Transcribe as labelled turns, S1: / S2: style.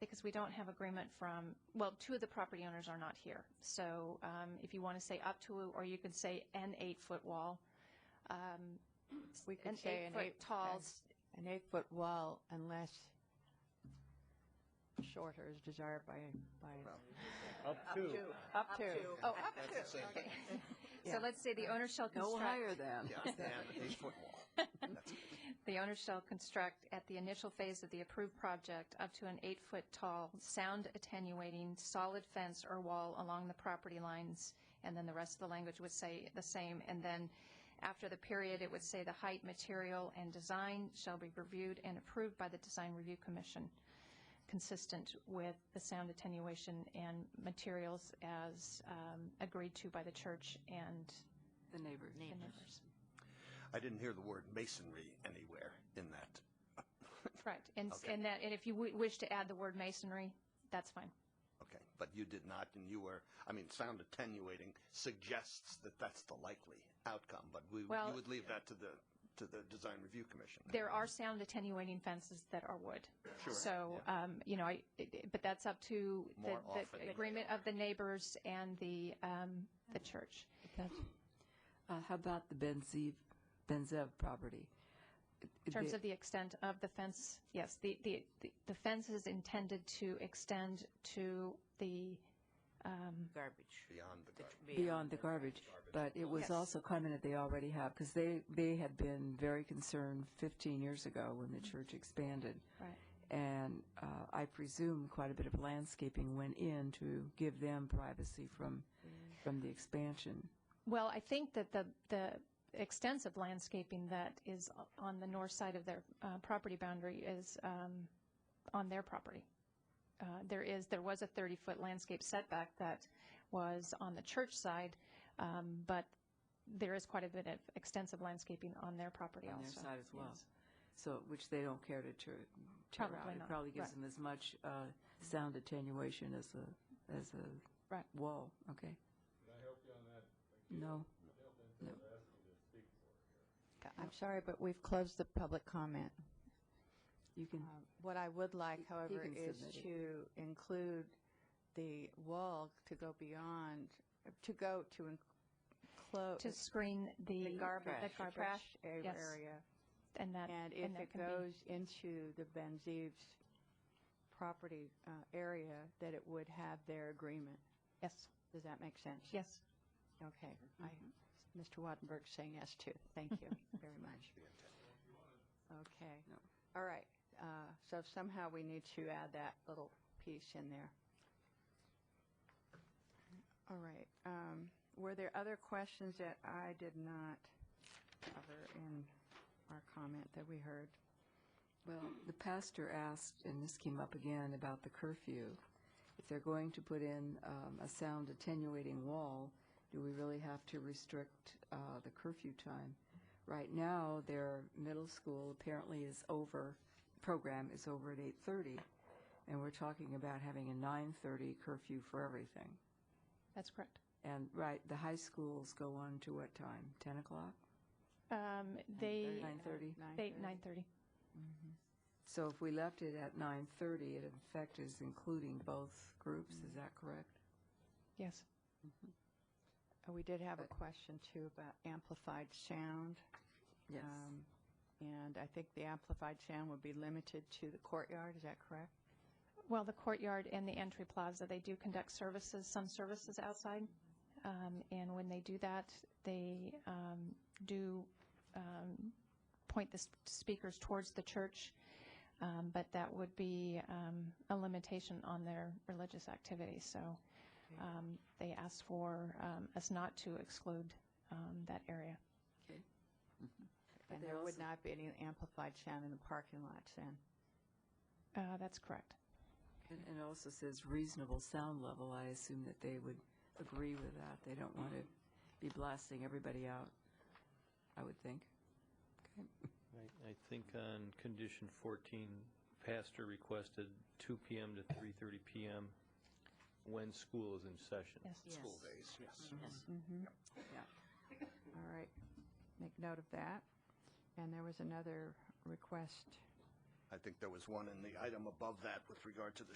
S1: because we don't have agreement from, well, two of the property owners are not here. So um, if you want to say up to, or you can say an eight-foot wall.
S2: We
S1: an
S2: could say an
S1: eight-foot
S2: eight.
S1: tall
S2: an-
S1: s-
S2: An eight-foot wall unless shorter is desired by, by,
S3: Up to.
S2: up to.
S1: Oh, up to.
S4: That's the same thing.
S1: So let's say the owner shall construct.
S2: No higher than.
S4: Yeah, and a football.
S1: The owner shall construct at the initial phase of the approved project up to an eight-foot tall, sound attenuating, solid fence or wall along the property lines, and then the rest of the language would say the same. And then after the period, it would say the height, material, and design shall be reviewed and approved by the Design Review Commission, consistent with the sound attenuation and materials as um, agreed to by the church and
S2: The neighbors.
S1: the neighbors.
S4: I didn't hear the word masonry anywhere in that.
S1: Right, and, and that, and if you wi- wish to add the word masonry, that's fine.
S4: Okay, but you did not, and you were, I mean, sound attenuating suggests that that's the likely outcome, but we, you
S1: Well-
S4: would leave that to the, to the Design Review Commission.
S1: There are sound attenuating fences that are wood. Sure. So, um, you know, I, it- it- but that's up to the-
S4: More often
S1: the
S4: than
S1: agreement of the neighbors and the, um, the church.
S2: Uh, how about the Benzev, Benzev property?
S1: In terms of the extent of the fence, yes, the, the, the- the fence is intended to extend to the,
S5: garbage.
S4: Beyond the garden.
S2: Beyond the garbage, but it was also commented they already have, because they, they had been very concerned 15 years ago when the church expanded.
S1: right.
S2: And uh, I presume quite a bit of landscaping went in to give them privacy from,
S1: Mm.
S2: from the expansion.
S1: Well, I think that the, the extensive landscaping that is on the north side of their uh, property boundary is um, on their property. Uh, There is, there was a 30-foot landscape setback that was on the church side, um, but there is quite a bit of extensive landscaping on their property
S2: on
S1: also.
S2: their side as well. So, which they don't care to tear, tear
S1: Probably
S2: out. It
S1: not,
S2: probably gives
S1: right.
S2: them as much uh, sound attenuation as a, as a
S1: Right.
S2: wall, okay?
S3: Can I help you on that?
S2: No.
S3: They're asking to speak for it.
S6: I'm sorry, but we've closed the public comment.
S2: You can,
S6: Um, What I would like, however,
S2: can
S6: is
S2: submit it.
S6: to include the wall to go beyond, to go
S1: To
S6: to enclose
S1: screen the.
S6: the garbage,
S1: The
S6: the
S1: garbage.
S6: trash a-
S1: Yes.
S6: area.
S1: And that.
S6: And if
S1: that
S6: it
S1: can be-
S6: goes into the Benzeve's property uh, area, that it would have their agreement.
S1: Yes,
S6: Does that make sense?
S1: yes.
S6: Okay. I,
S1: Mm-hmm.
S6: Mr. Wattenberg's saying yes too. Thank you very much. Okay. All right. Uh, So somehow we need to add that little piece in there. All right. Um, Were there other questions that I did not cover in our comment that we heard?
S2: well, the pastor asked, and this came up again, about the curfew. If they're going to put in um, a sound attenuating wall, do we really have to restrict uh, the curfew time? Right now, their middle school apparently is over, program is over at 8:30, and we're talking about having a 9:30 curfew for everything.
S1: That's correct.
S2: And, right, the high schools go on to what time? 10 o'clock?
S1: Um, They,
S2: 9:30?
S1: they, 9:30.
S2: So if we left it at 9:30, it in effect is including both groups, is that correct?
S1: Yes.
S6: Uh, We did have a question too about amplified sound.
S2: Yes.
S6: Um, And I think the amplified sound would be limited to the courtyard, is that correct?
S1: Well, the courtyard and the entry plaza, they do conduct services, some services outside. Um, And when they do that, they um, do um, point the s- speakers towards the church, Um, but that would be um, a limitation on their religious activity. So um, they asked for um, us not to exclude um, that area.
S6: And
S2: there
S6: there would
S2: also- Mm.
S6: not be any amplified sound in the parking lots then?
S1: Uh, That's correct.
S2: And and it also says reasonable sound level, I assume that they would agree with that, they don't want to be blasting everybody out, I would think.
S7: I, I think on condition 14, pastor requested 2 PM to 3:30 PM when school is in session.
S1: Yes.
S4: School days, yes.
S2: Yeah.
S6: All right, make note of that. And there was another request.
S4: I think there was one in the item above that with regard to the